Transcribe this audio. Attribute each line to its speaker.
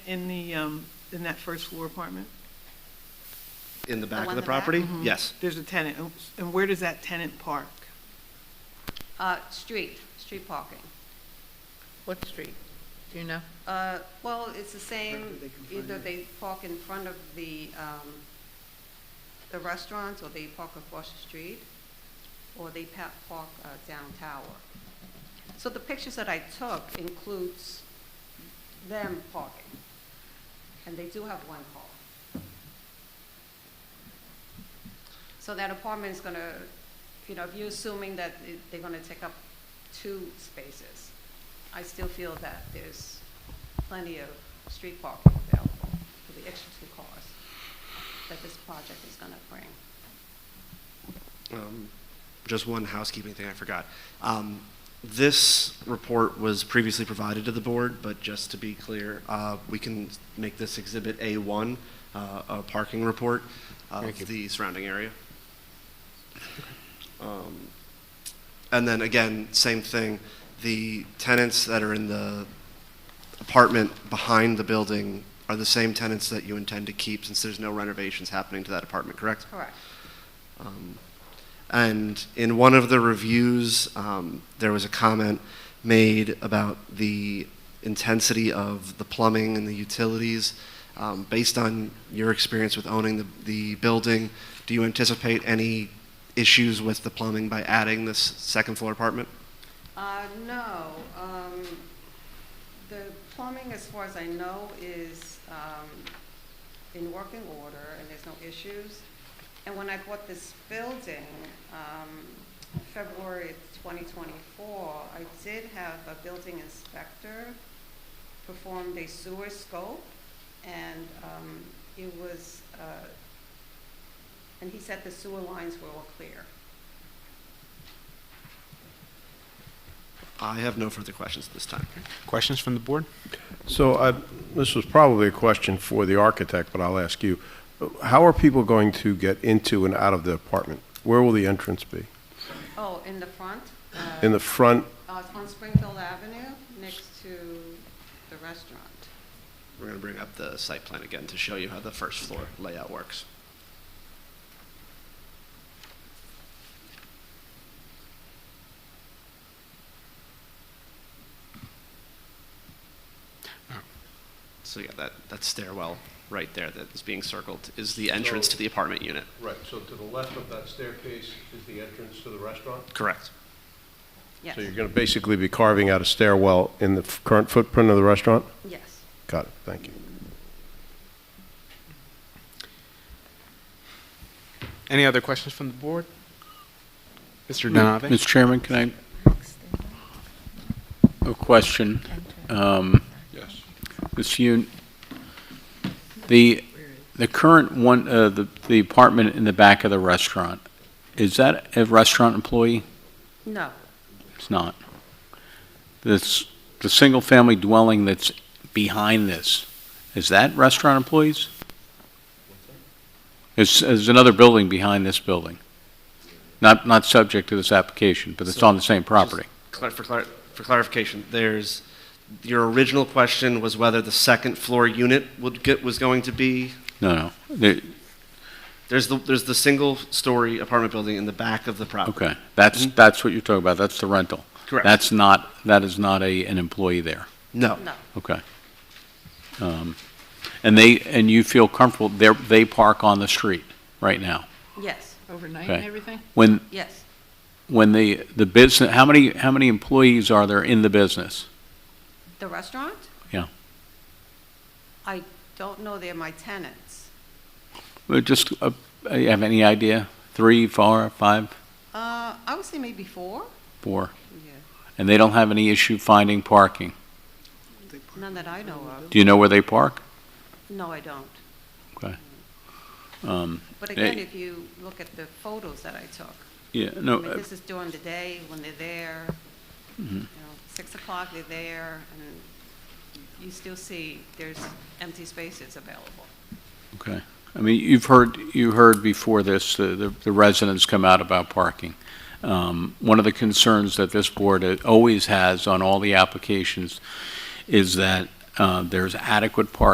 Speaker 1: in the, um, in that first floor apartment?
Speaker 2: In the back of
Speaker 3: one
Speaker 2: the
Speaker 3: in the back? Mm-hmm.
Speaker 2: property? Yes.
Speaker 1: There's a tenant, and- and where does that tenant park?
Speaker 3: Uh, street, street parking.
Speaker 4: What street? Do you know?
Speaker 3: Uh, well, it's the same,
Speaker 1: They can find
Speaker 3: either
Speaker 1: it.
Speaker 3: they park in front of the, um, the restaurants, or they park across the street, or they pa- park, uh, down tower. So the pictures that I took includes them parking, and they do have one car. So that apartment is gonna, you know, if you're assuming that it- they're gonna take up two spaces, I still feel that there's plenty of street parking available for the extra two cars that this project is gonna bring.
Speaker 2: Um, Just one housekeeping thing I forgot. Um, This report was previously provided to the board, but just to be clear, uh, we can make this Exhibit A1, uh, a parking report
Speaker 5: Thank you.
Speaker 2: of the surrounding area. Um, And then again, same thing, the tenants that are in the apartment behind the building are the same tenants that you intend to keep since there's no renovations happening to that apartment, correct?
Speaker 3: Correct.
Speaker 2: Um, And in one of the reviews, um, there was a comment made about the intensity of the plumbing and the utilities. Um, Based on your experience with owning the, the building, do you anticipate any issues with the plumbing by adding this second floor apartment?
Speaker 3: Uh, no, um, the plumbing, as far as I know, is, um, in working order and there's no issues. And when I bought this building, um, February twenty twenty-four, I did have a building inspector performed a sewer scope, and um, it was, uh, and he said the sewer lines were all clear.
Speaker 2: I have no further questions at this time.
Speaker 5: Questions from the board?
Speaker 6: So I, this was probably a question for the architect, but I'll ask you. How are people going to get into and out of the apartment? Where will the entrance be?
Speaker 3: Oh, in the front? uh,
Speaker 6: In the front,
Speaker 3: Uh, it's on Springfield Avenue, next to the restaurant.
Speaker 2: We're going to bring up the site plan again to show you how the first floor layout works. So yeah, that, that stairwell right there that is being circled is the entrance to the apartment unit.
Speaker 6: Right, so to the left of that staircase is the entrance to the restaurant?
Speaker 2: Correct.
Speaker 3: Yes,
Speaker 6: So you're going to basically be carving out a stairwell in the f- current footprint of the restaurant?
Speaker 3: yes.
Speaker 6: Got it, thank you.
Speaker 5: Any other questions from the board? Mr. Donave?
Speaker 7: Mr. Chairman, can I, a question? Um,
Speaker 6: Yes.
Speaker 7: Ms. Yoon, the, the current one, uh, the the apartment in the back of the restaurant, is that a restaurant employee?
Speaker 3: No,
Speaker 7: It's not. This, the single-family dwelling that's behind this, is that restaurant employees? There's, there's another building behind this building. Not, not subject to this application, but it's on the same property.
Speaker 2: Clar- For, clar- for clarification, there's, your original question was whether the second floor unit would get, was going to be
Speaker 7: No, no. There-
Speaker 2: There's the, there's the single-story apartment building in the back of the property.
Speaker 7: Okay, that's, that's what you're talking about, that's the rental.
Speaker 2: Correct.
Speaker 7: That's not, that is not a, an employee there,
Speaker 2: No.
Speaker 3: no,
Speaker 7: okay. Um, And they, and you feel comfortable, they're, they park on the street right now?
Speaker 3: yes,
Speaker 4: Overnight
Speaker 7: and Okay.
Speaker 4: everything?
Speaker 7: When,
Speaker 3: yes.
Speaker 7: when the, the business, how many, how many employees are there in the business?
Speaker 3: The restaurant?
Speaker 7: Yeah.
Speaker 3: I don't know, they're my tenants.
Speaker 7: Well, Just, uh, you have any idea? Three, four, five,
Speaker 3: Uh, I would say maybe four?
Speaker 7: four?
Speaker 3: Yeah.
Speaker 7: And they don't have any issue finding parking?
Speaker 3: None that I know of.
Speaker 7: Do you know where they park?
Speaker 3: No, I don't. Mm.
Speaker 7: Um,
Speaker 3: But
Speaker 7: Eh.
Speaker 3: again, if you look at the photos that I took,
Speaker 7: Yeah,
Speaker 3: I
Speaker 7: no,
Speaker 3: mean,
Speaker 7: uh, Mm-hmm.
Speaker 3: this is during the day when they're there, you know, six o'clock, they're there, and you still see there's empty spaces available.
Speaker 7: Okay. I mean, you've heard, you heard before this, the- the the residents come out about parking. Um, One of the concerns that this board uh, always has on all the applications is that uh, there's adequate parking